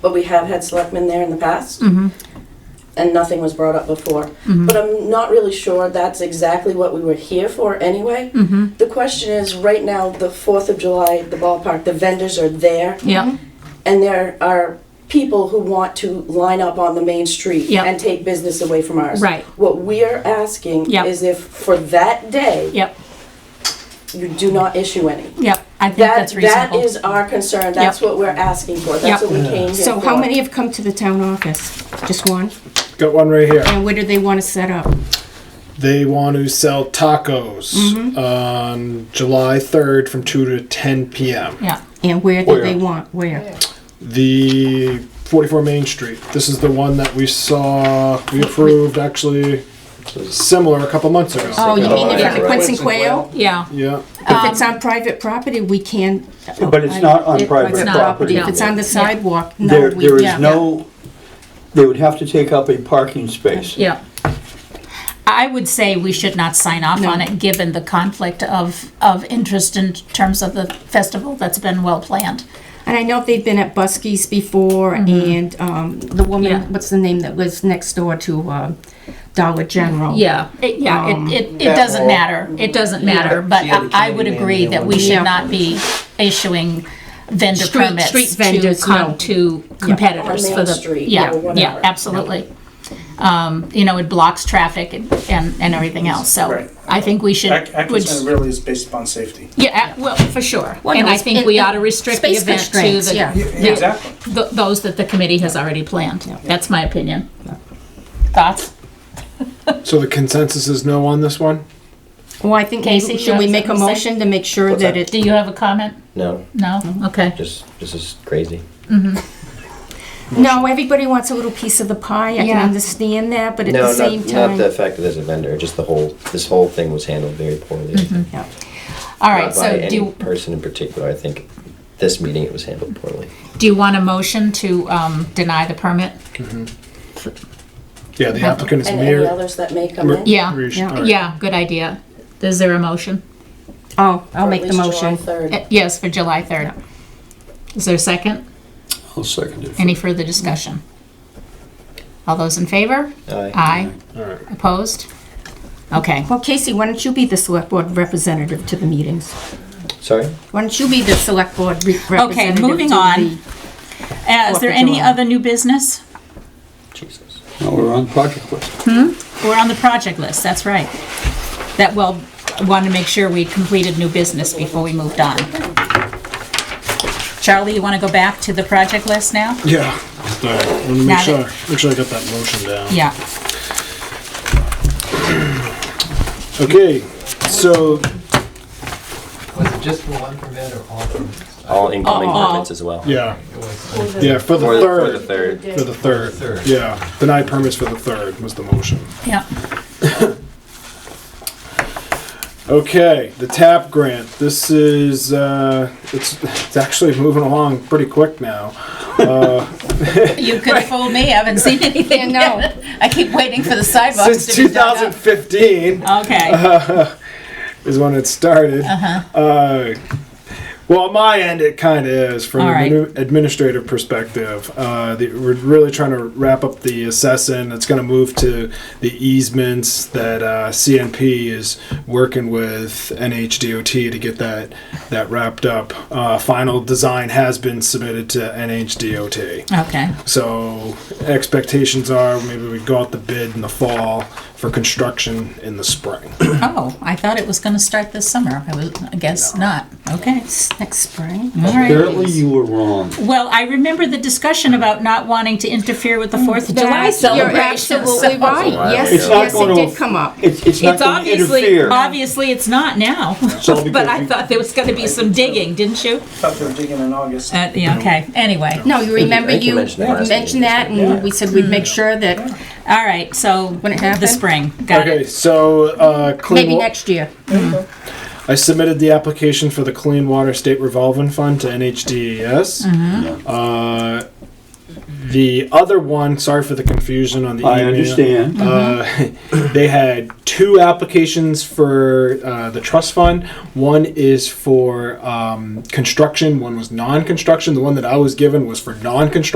but we have had selectmen there in the past, Mm-hmm. and nothing was brought up before. But I'm not really sure that's exactly what we were here for anyway. Mm-hmm. The question is, right now, the Fourth of July, the ballpark, the vendors are there, Yeah. and there are people who want to line up on the main street Yep. and take business away from ours. Right. What we are asking Yep. is if for that day, Yep. you do not issue any. Yep. I think That, that's that reasonable. is our concern, that's what we're asking for, that's Yep. what we came here for. So how many have come to the town office? Just one? Got one right here. And where do they want to set up? They want to sell tacos Mm-hmm. on July 3rd from 2 to 10 p.m. yeah. And where do they Where? want, where? The 44 Main Street. This is the one that we saw, we approved actually similar a couple months ago. Oh, you mean Oh, in yeah, front of right. Quincy Quayle? Yeah. Yeah. If it's on private property, we can. But it's not on It- private it's not. property. If it's on the sidewalk, no, There, we, there yeah. is no, they would have to take up a parking space. Yeah. I would say we should not sign off on it, given the conflict of, of interest in terms of the festival that's been well planned. And I know they've been at Buskey's before, and um, the Yeah. woman, what's the name that was next door to uh, Dollar General? Yeah, it, yeah, Um, it, it, it doesn't matter, it doesn't matter, but She had a I I would candy man agree there that one we day. should Yeah. not be issuing vendor Street- permits street to, vendors, con- no. to competitors On Main for the, Street yeah, or yeah, whatever. absolutely. Um, you know, it blocks traffic and, and and everything else, so Right. I think we should, Ac- would- Atkinson really is based upon safety. yeah, uh, well, for sure. Well, And no, I it's- think it- we it- ought to restrict the space event to constraints, the, yeah. Yeah, Yeah. Exactly. th- those that the committee has already planned. That's my opinion. Thoughts? So the consensus is no on this one? Well, I think, Casey, you should we have make a something to say? motion to make sure What's that that? it, Do you have a comment? No, No? Mm-hmm. Okay. just this is crazy. no, everybody wants a little piece of the pie, I can Yeah. understand that, but at no, the same not, not the time. fact that there's a vendor. Just the whole this whole thing was handled very poorly. Yeah. All Not right, by so any do, you- person in particular. I think this meeting it was handled poorly. do you want a motion to um, deny the permit? Yeah, the applicant is And any Mir. others that may come in? Yeah. Rish- Yeah. all right. Yeah, good idea. Is there a motion? Oh, Or I'll at make the least July motion. 3rd. Eh, Yes, for July 3rd. Is there a second? I'll second it. Any further discussion? All those in favor? I, Aye. Opposed? Okay. Well, Casey, why don't you be the select board representative to the meetings? sorry. Why don't you be the select board re- representative? moving to on. the- Uh, Is Fourth there of any July. other new business? Jesus. Now we're on project list. We're on the project list, that's right. That, well, I wanted to make sure we completed new business before we moved on. Charlie, you want to go back to the project list now? Yeah. All right. Let me make Got sure, it. make sure I got that motion down. Yeah. Okay. So Was it just for one permit or all permits? All incoming Uh-uh. permits as well. yeah, It was. yeah for the For the, for third. the third. For the third. third. Yeah, denied permits for the third was the motion. Yeah. Okay, the TAP grant. This is, uh, it's, it's actually moving along pretty quick now. You could have fooled me, I haven't seen anything Yeah, no. yet. I keep waiting for the sidewalks Since to be done up. 2015 Okay, is when it started. Uh-huh. well, on my end, it kind of is from All an right. admi- administrative perspective. Uh, the, we're really trying to wrap up the assessing. It's going to move to the easements that uh, CNP is working with NHDOT to get that that wrapped up. Uh, final design has been submitted to NHDOT. okay. So expectations are maybe we go out the bid in the fall for construction in the spring. Oh, I thought it was going to start this summer. I was, I guess not. Okay. Next spring? All right. Apparently you were wrong. Well, I remember the discussion about not wanting to interfere with the Fourth of July You're celebration. absolutely right, while yes, ago. It's not yes, it gonna did aff- come up. It's, it's not It's going to obviously, interfere. obviously, it's not now. It's all But because I you- thought there was going to be some digging, didn't you? Thought they were digging in August. Uh, yeah, okay, anyway. No, you remember think you you mentioned that last mentioned that, meeting. and we said we'd make sure that, All right, so it the happened? spring, got okay, it. so uh, clean. maybe wa- next year. I submitted the application for the Clean Water State Revolving Fund to NHDES. E Uh, the other one, sorry for the confusion on the I email. understand. Uh, they had two applications for uh, the trust fund. One is for um, construction, one was non construction. The one that I was given was for non construction.